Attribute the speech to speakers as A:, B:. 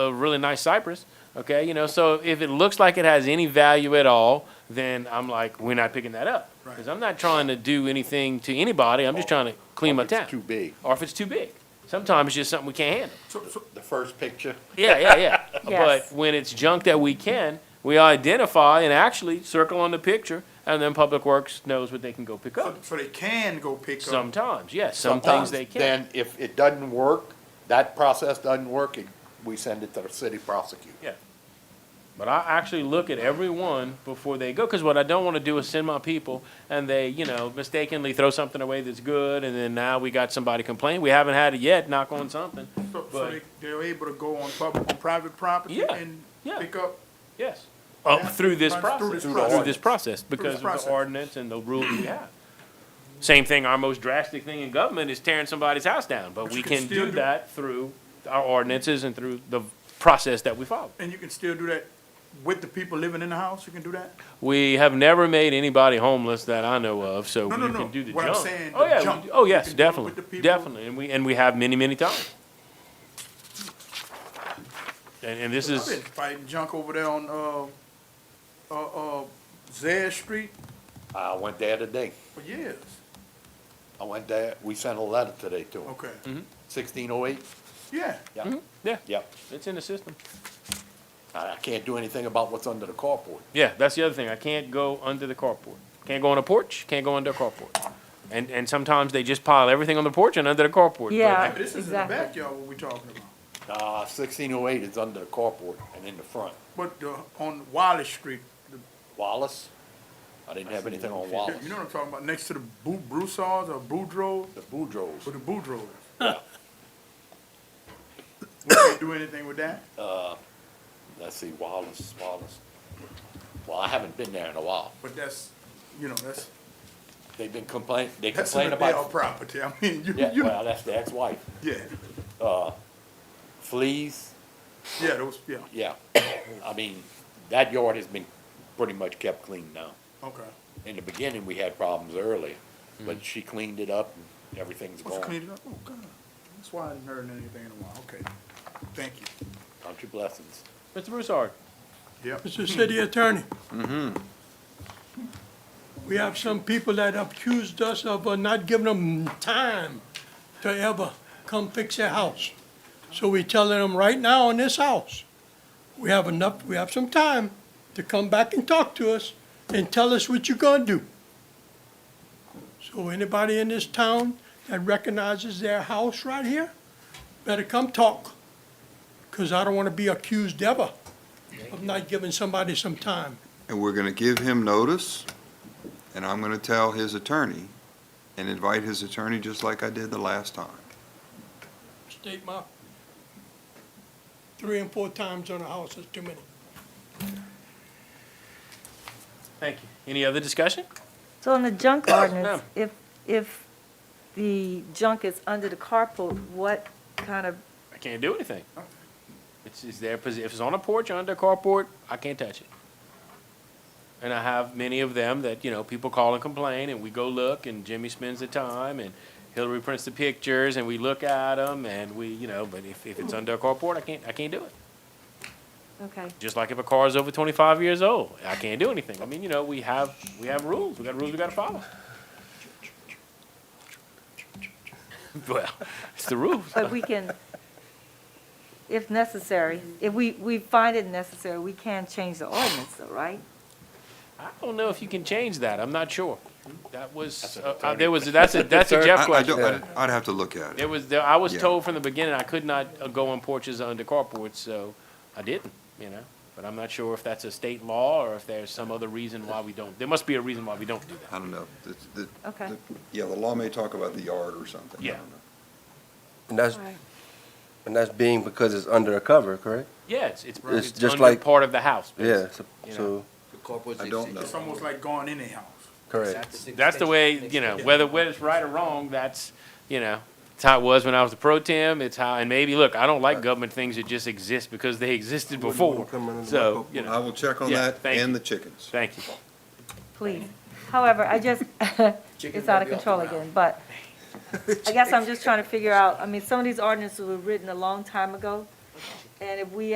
A: a really nice cypress. Okay, you know, so if it looks like it has any value at all, then I'm like, we're not picking that up. Because I'm not trying to do anything to anybody, I'm just trying to clean my
B: If
A: town.
B: It's too big.
A: Or if it's too big. Sometimes it's just something we can't handle.
B: The first picture,
A: Yeah, yeah, yeah.
C: Yes.
A: But when it's junk that we can, we identify and actually circle on the picture, and then Public Works knows what they can go pick
D: So,
A: up.
D: so they can go pick up.
A: Sometimes, yes, some things
B: sometimes,
A: they can.
B: then if it doesn't work, that process doesn't work, it- we send it to the city prosecutor.
A: Yeah. But I actually look at every one before they go, because what I don't want to do is send my people and they, you know, mistakenly throw something away that's good, and then now we got somebody complaining. We haven't had it yet, knock on something.
D: So, so
A: But-
D: they, they're able to go on public, on private property
A: Yeah,
D: and
A: yeah.
D: pick up.
A: Yes. Uh, through this
D: Through
A: process,
D: this
A: through
D: process.
A: this process, because of
D: process.
A: the ordinance and the rules we have. Same thing, our most drastic thing in government is tearing somebody's house down, but
D: But
A: we
D: you can
A: can
D: still
A: do
D: do-
A: that through our ordinances and through the process that we follow.
D: And you can still do that with the people living in the house, you can do that?
A: We have never made anybody homeless that I know of, so
D: No,
A: we
D: no, no.
A: can do the
D: What I'm
A: jump.
D: saying,
A: Oh,
D: the
A: yeah, we
D: jump.
A: do- oh,
D: You
A: yes,
D: can do it with the
A: definitely,
D: people.
A: definitely, and we, and we have many, many times. And, and this
D: I've
A: is,
D: been fighting junk over there on, uh, uh, uh, Zaire Street
B: I went there today,
D: for years.
B: I went there, we sent a letter today to him,
D: Okay,
B: sixteen oh eight,
D: Mm-hmm.
A: Mm-hmm.
D: yeah.
B: yeah,
A: yeah,
B: yeah.
A: it's in the system.
B: I, I can't do anything about what's under the carport.
A: Yeah, that's the other thing. I can't go under the carport. Can't go on a porch, can't go under a carport. And, and sometimes they just pile everything on the porch and under the carport. but-
C: Yeah.
D: But This is in the
C: Exactly.
D: backyard what we talking about,
B: Uh, sixteen oh eight is under the carport and in the front.
D: but the, on Wallace Street, the-
B: Wallace, I didn't have anything on Wallace,
D: you know what I'm talking about, next to the Bu- Broussards or Boudreaux,
B: the Boudreaux's.
D: or the Boudreaux. We can't do anything with that?
B: let's see, Wallace, Wallace. Well, I haven't been there in a while.
D: But that's, you know, that's,
B: They've been complaining, they
D: that's
B: complain
D: an adult
B: about,
D: property, I mean, you,
B: yeah,
D: you,
B: well, that's the ex-wife.
D: yeah,
B: Fleas,
D: yeah, those, yeah,
B: yeah. I mean, that yard has been pretty much kept clean now.
D: okay.
B: In the beginning, we had problems earlier, but she cleaned it up and everything's
D: Let's
B: gone.
D: clean it up, oh, God, that's why I haven't heard anything in a while, okay, thank you.
B: Country blessings.
A: Mr. Broussard,
D: Yep,
E: Mr. City Attorney. We have some people that accused us of uh, not giving them time to ever come fix their house. So we telling them right now in this house, we have enough, we have some time to come back and talk to us and tell us what you're gonna do. So anybody in this town that recognizes their house right here, better come talk. Cause I don't wanna be accused ever of not giving somebody some time.
F: And we're gonna give him notice, and I'm gonna tell his attorney, and invite his attorney just like I did the last time.
E: State my, three and four times on a house is too many.
A: thank you. Any other discussion?
C: So on the junk
A: Ma'am.
C: ordinance, if, if the junk is under the carport, what kind of,
A: I can't do anything. It's, it's their, posi- if it's on a porch or under a carport, I can't touch it. And I have many of them that, you know, people call and complain, and we go look, and Jimmy spends the time, and Hillary prints the pictures, and we look at them, and we, you know, but if, if it's under a carport, I can't, I can't do it.
C: okay,
A: Just like if a car is over twenty-five years old, I can't do anything. I mean, you know, we have, we have rules. We got rules we gotta follow. Well, it's the rules.
C: but we can, if necessary, if we, we find it necessary, we can change the ordinance though, right?
A: I don't know if you can change that. I'm not sure. That was,
B: That's an
A: uh, uh,
B: attorney-
A: there was, that's a, that's a Jeff
F: I- I don't-
A: question.
F: I'd- I'd have to look at
A: There
F: it.
A: was, there- I was
F: Yeah.
A: told from the beginning I could not uh, go on porches under carports, so I didn't, you know? But I'm not sure if that's a state law or if there's some other reason why we don't. There must be a reason why we don't do that.
F: I don't know. The- the-
C: Okay.
F: the- Yeah, the law may talk about the yard or something. I
A: Yeah.
F: don't know.
G: And that's, and that's being because it's under a cover, correct?
A: Yeah, it's, it's,
G: It's
A: it's
G: just
A: under
G: like-
A: part of the house.
G: Yeah,
A: basically.
G: so-
A: You know.
G: so,
F: I don't know.
D: it's almost like going in a house.
G: correct.
A: That's the way, you know, whether, whether it's right or wrong, that's, you know, it's how it was when I was the pro tem. It's how, and maybe, look, I don't like government things that just exist because they existed
G: wouldn't want
A: before.
G: them coming into my
A: So,
G: court.
A: you know.
F: I will check on
A: Oh, Yeah,
F: that
A: thank
F: and
A: you.
F: the chickens.
A: Thank you.
C: Please. However, I just, it's out of control again, but I guess I'm just trying to figure out, I mean, some of these ordinances were written a long time ago. And if we